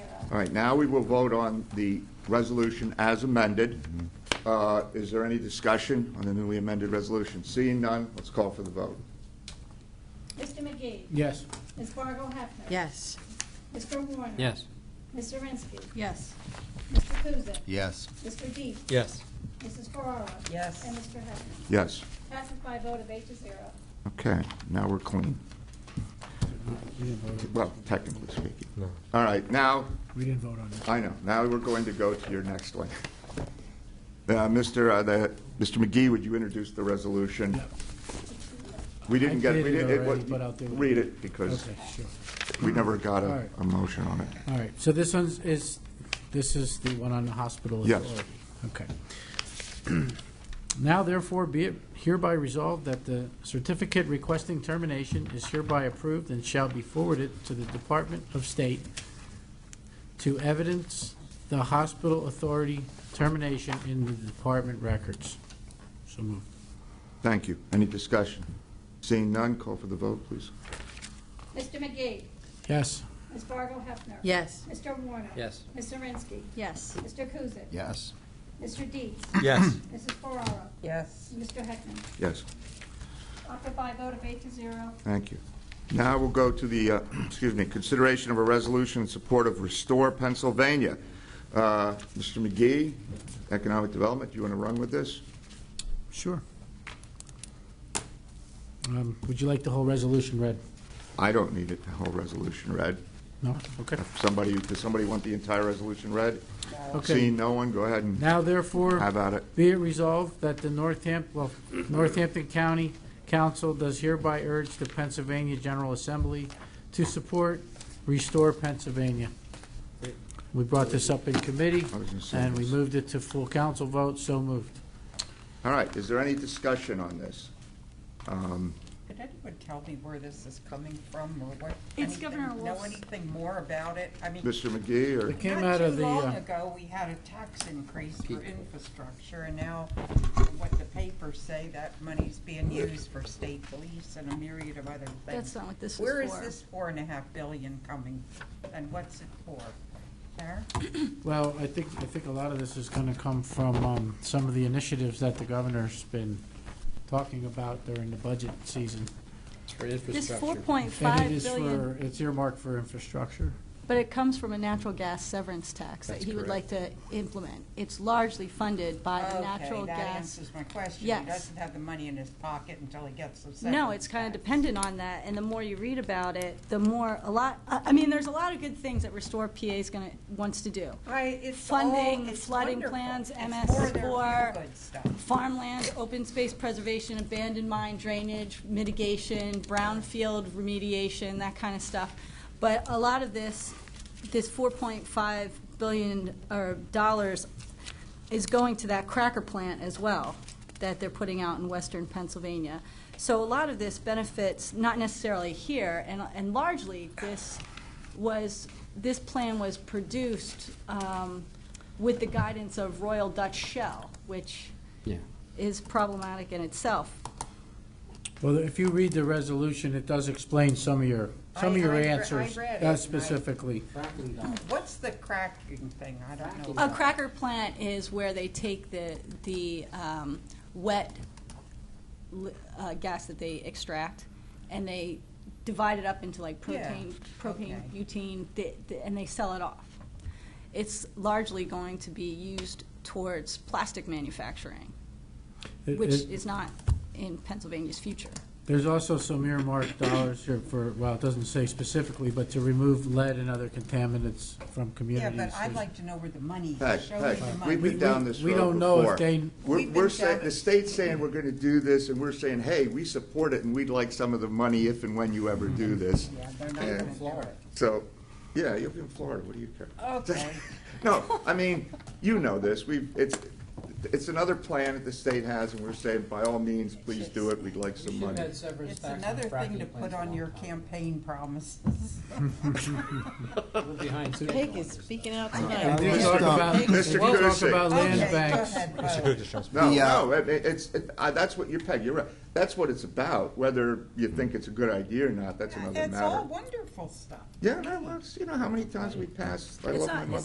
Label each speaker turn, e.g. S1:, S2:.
S1: All right, now we will vote on the resolution as amended. Uh, Is there any discussion on the newly amended resolution? Seeing none, let's call for the vote.
S2: Mr. McGee.
S3: Yes.
S2: Ms. Fargo Hefner.
S4: Yes.
S2: Mr. Warner.
S5: Yes.
S2: Mr. Rinsky.
S4: Yes.
S2: Mr. Kuzic.
S6: yes,
S2: Mr. Dees.
S5: Yes.
S2: Mrs. Ferraro.
S4: Yes.
S2: And Mr. Hefner.
S1: Yes,
S2: Passes by a vote of eight to zero.
S1: okay, now we're clean.
S3: We didn't vote on-
S1: Well, technically speaking. All right, now,
S3: we didn't vote on this.
S1: I know, now we're going to go to your next one. Uh, Mr. uh, the- Mr. McGee, would you introduce the resolution?
S3: Yeah.
S1: We didn't
S3: I
S1: get, we
S3: did it
S1: didn't, it wa-
S3: already, but I'll do it.
S1: read it, because
S3: Okay, sure.
S1: we never got
S3: All
S1: a
S3: right.
S1: a motion on it.
S3: All right, so this one's, is, this is the one on the hospital
S1: Yes.
S3: authority? Okay. Now therefore be it hereby resolved that the certificate requesting termination is hereby approved and shall be forwarded to the Department of State to evidence the hospital authority termination in the department records. So moved.
S1: Thank you. Any discussion? Seeing none, call for the vote, please.
S2: Mr. McGee.
S3: Yes.
S2: Ms. Fargo Hefner.
S4: Yes.
S2: Mr. Warner.
S5: Yes.
S2: Mr. Rinsky.
S4: Yes.
S2: Mr. Kuzic.
S6: yes,
S2: Mr. Dees.
S5: Yes.
S2: Mrs. Ferraro.
S4: Yes.
S2: And Mr. Hefner.
S1: Yes,
S2: Adopted by a vote of eight to zero.
S1: thank you. Now we'll go to the, uh, excuse me, consideration of a resolution in support of Restore Pennsylvania. Uh, Mr. McGee, Economic Development, do you want to run with this?
S3: Sure. Um, Would you like the whole resolution read?
S1: I don't need it, the whole resolution read.
S3: No? Okay.
S1: If Somebody, does somebody want the entire resolution read?
S3: Okay.
S1: Seeing no one, go ahead and
S3: Now therefore.
S1: have at it.
S3: Be it resolved that the Northampton, well, Northampton County Council does hereby urge the Pennsylvania General Assembly to support Restore Pennsylvania. We brought this up in committee,
S1: I was gonna say
S3: and we
S1: this.
S3: moved it to full council vote, so moved.
S1: All right, is there any discussion on this? Um,
S7: Could anyone tell me where this is coming from or what?
S8: It's
S7: anything-
S8: Governor
S7: Know
S8: Wolf's-
S7: anything more about it? I mean,
S1: Mr. McGee, or,
S3: It came
S7: not
S3: out of
S7: too
S3: the,
S7: long
S3: uh,
S7: ago, we had a tax increase for infrastructure and now from what the papers say, that money's being used for state police and a myriad of other things.
S8: That's not what this is
S7: Where is
S8: for.
S7: this four and a half billion coming and what's it for? Sarah?
S3: well, I think, I think a lot of this is going to come from um, some of the initiatives that the governor's been talking about during the budget season.
S8: This 4.5
S3: And it is
S8: billion,
S3: for, it's earmarked for infrastructure.
S8: but it comes from a natural gas severance tax that
S5: That's
S8: he would like
S5: correct.
S8: to implement. It's largely funded by the Uh, natural
S7: Okay, that
S8: gas.
S7: answers my question.
S8: Yes.
S7: He doesn't have the money in his pocket until he gets the
S8: No,
S7: severance
S8: it's kind of
S7: tax.
S8: dependent on that, and the more you read about it, the more, a lot, I I mean, there's a lot of good things that Restore PA is going to, wants to do.
S7: I, it's all,
S8: Funding,
S7: it's
S8: flooding
S7: wonderful.
S8: plans,
S7: It's
S8: MS4.
S7: for their feel-good stuff.
S8: farmland, open space preservation, abandoned mine drainage, mitigation, brownfield remediation, that kind of stuff. But a lot of this, this 4.5 billion or dollars is going to that cracker plant as well that they're putting out in western Pennsylvania. So a lot of this benefits, not necessarily here, and, and largely this was, this plan was produced um, with the guidance of Royal Dutch Shell, which
S5: Yeah.
S8: is problematic in itself.
S3: Well, if you read the resolution, it does explain some of your, some of your
S7: I- I re- I
S3: answers
S7: read it,
S3: uh,
S7: and I-
S3: specifically.
S7: What's the cracking thing? I don't know.
S8: A
S7: about.
S8: cracker plant is where they take the, the um, wet li- uh, gas that they extract, and they divide it up into like
S7: Yeah,
S8: propane, propane,
S7: okay.
S8: butane, th- th- and they sell it off. It's largely going to be used towards plastic manufacturing,
S3: It-
S8: which
S3: it-
S8: is not in Pennsylvania's future.
S3: There's also some earmarked dollars here for, well, it doesn't say specifically, but to remove lead and other contaminants from
S7: Yeah,
S3: communities.
S7: but I'd like to know where the money
S1: Peg,
S7: is. Show me
S1: Peg,
S7: the
S1: we've
S7: money.
S1: been down this road
S3: We
S1: before.
S3: don't know if they-
S1: We're,
S7: We've been
S1: we're saying,
S7: down-
S1: the state's saying we're gonna do this, and we're saying, hey, we support it, and we'd like some of the money if and when you ever
S7: Mm-hmm.
S1: do this.
S7: Yeah, they're not gonna do it.
S1: So, yeah, you'll be in Florida, what do you care?
S7: Okay.
S1: No, I mean, you know this, we've, it's, it's another plan that the state has, and we're saying, by all means, please do it, we'd like some money.
S7: It's another thing to put on your campaign promises.
S4: We're behind schedule
S5: Peg
S4: on
S5: is
S4: this.
S5: speaking out
S3: We'll
S5: tonight.
S3: talk
S5: Peg,
S1: stop.
S3: about-
S1: Mr.
S3: We'll talk
S1: Kucing.
S3: about land
S7: Okay, go
S3: banks.
S7: ahead, vote.
S1: No,
S6: The, uh,
S1: no, it- it- it's, it- I- that's what, you're Peg, you're right. That's what it's about, whether you think it's a good idea or not, that's another
S7: That's all
S1: matter.
S7: wonderful stuff.
S1: Yeah, no, well, it's- you know how many times we pass, I love
S8: not-
S1: my mother.